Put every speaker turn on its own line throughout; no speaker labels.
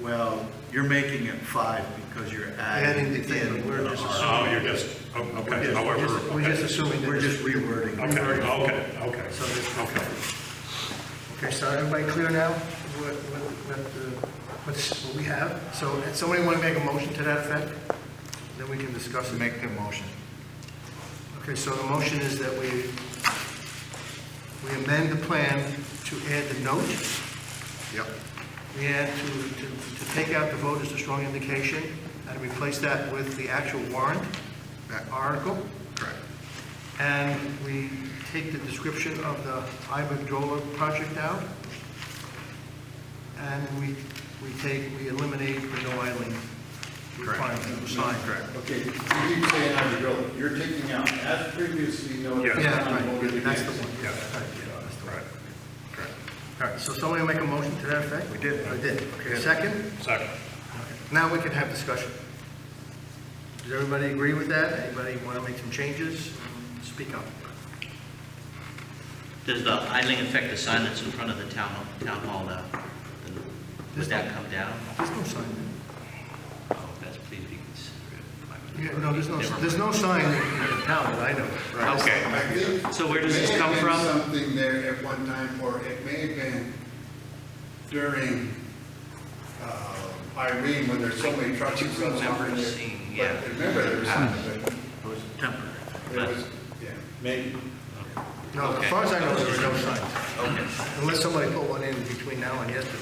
Well, you're making it five because you're adding
Adding the
in
in, we're
the
just
R.
assuming-
Oh, you're just, oh, okay, however.
Just- We're just assuming that.
We're just rewording.
Okay, okay, okay,
So this-
okay.
Okay, so everybody clear now what, what, what, the- what's, what we have? So, and somebody want to make a motion to that effect? Then we can discuss it.
Make the motion.
Okay, so the motion is that we, we amend the plan to add the note.
Yep.
We add to, to, to take out the vote as a strong indication and replace that with the actual warrant
That-
article.
Correct.
And we take the description of the Iberdrola project out. And we, we take, we eliminate the no idling requirement, the sign.
Correct.
Okay, you keep saying on the bill, you're taking out as previously noted.
Yeah.
Yeah,
and voted
right, that's the
against.
one.
Yeah.
Right, yeah, that's the one.
Right,
All right, so somebody make a motion to that effect?
We did.
I did. Okay, second?
second.
Now we can have discussion. Does everybody agree with that? Anybody want to make some changes? Speak up.
Does the idling affect the sign that's in front of the town, town hall now? And Would that come down?
There's no sign.
Oh, that's, please be considerate.
Yeah, No, there's no, there's no sign in the town that I know. of.
Okay,
I think
so where does
may
this
have
come
been
from?
Something there at one time, or it may have been during uh, Irene, when there's so many trucks. and stuff
remember
on there.
seeing,
But
yeah. Ah.
Remember there was something,
It was temporary.
but
But-
it was, yeah.
Maybe.
No, as
Okay.
far as I know, there were no signs,
Okay,
unless somebody put one in between now and yesterday.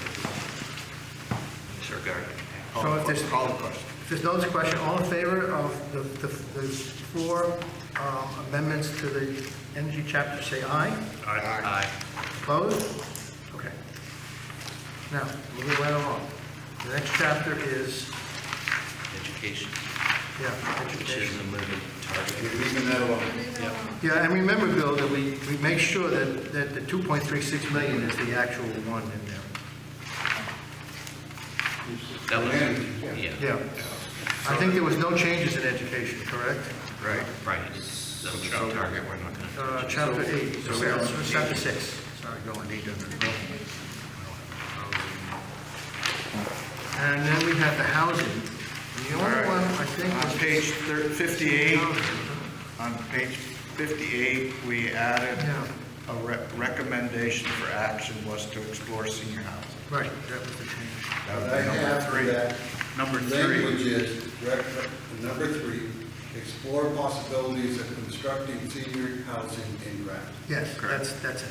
disregard.
So if there's, if there's no discussion, all in favor of the, the the four um, amendments to the energy chapter, say aye.
Aye.
Aye.
Opposed? Okay. Now, moving right along. The next chapter is,
Education,
yeah,
which is
education.
a moving
You're
target.
leaving that alone.
Yeah, and remember, Bill, that we, we make sure that, that the 2.36 million is the actual one in there.
That
Yeah.
was, yeah,
Yeah. I think there was no changes in education, correct?
Right.
right, it's a moving target, we're not gonna.
Uh, Chapter eight,
So we
sorry,
don't
chapter
need-
six.
Sorry, don't need to.
And then we have the housing. And the only one, I think, was...
On page thir- 58,
Housing.
on page 58, we added
Yeah.
a re- recommendation for action was to explore senior housing.
Right, that was the change.
That would
What I
be number
have for
three.
that
Number three.
language is, rec- number three, explore possibilities of constructing senior housing in Grafton.
Yes, that's, that's it.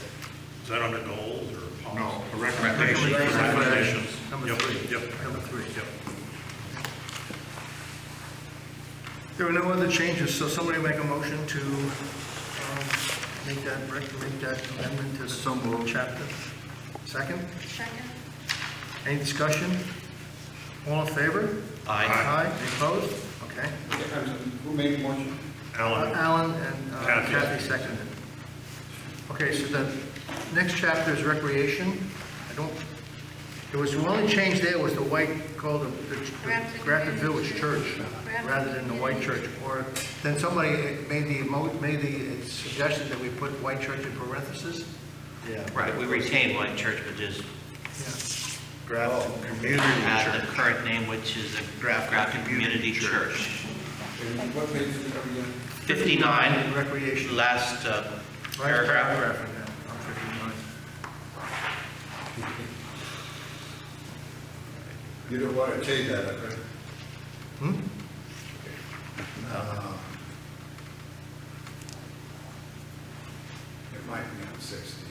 Is that under goals or
No,
policy?
a recommendation.
Recommendations.
Number
Yep,
three.
Yep.
Number three.
Yep.
There were no other changes, so somebody make a motion to um, make that, rec- make that amendment to the chapter. Second?
Second?
Any discussion? All in favor?
Aye.
Aye, Any opposed? Okay.
Okay, I'm sorry, Who made the motion?
Alan,
Alan and uh,
Kathy.
Kathy seconded. Okay, so the next chapter is recreation. I don't, it was, the only change there was the white, called the- the
Grafton
Grafton Village Church,
Community Church.
rather than the white church. Or, then somebody made the, mo- made the suggestion that we put white church in parentheses.
Yeah.
Right, we retain White Church, but just
Yeah. Oh.
Grafton Community
add the
Church.
current name, which is the
Grafton
Grafton
Community
Community
Church.
Church.
And What page is it, are we on?
59,
Recreation.
last uh,
Right,
paragraph.
Paragraph in there, on 59.
You don't want to change that, up, right?
Hmm?
Uh, It might be on 16.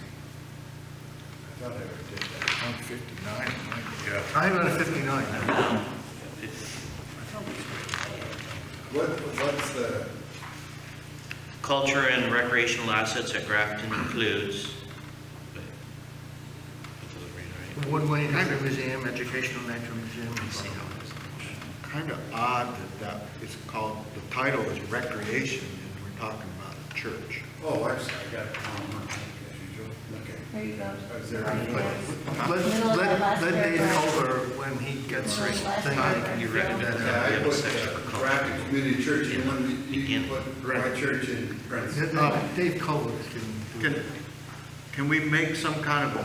I thought I already did that.
On 59.
yeah.
I have it on 59.
What, what's the,
Culture and recreational assets at Grafton includes.
Woodwind Natural Museum, Educational Natural Museum.
Kind of odd that that is called, the title is recreation, and we're talking about a church.
oh, I'm sorry, I got it wrong, one, as usual, okay.
There you go.
Is there
Right,
any-
yes.
Let, let, let Dave over when he gets his thing.
You recommend
Yeah,
that we
I
have a
put
section for
uh,
culture.
Rapid Community Church, you want, you
Again.
put my church in Princeton.
Uh, Dave Culver is giving.
Can, can we make some kind of a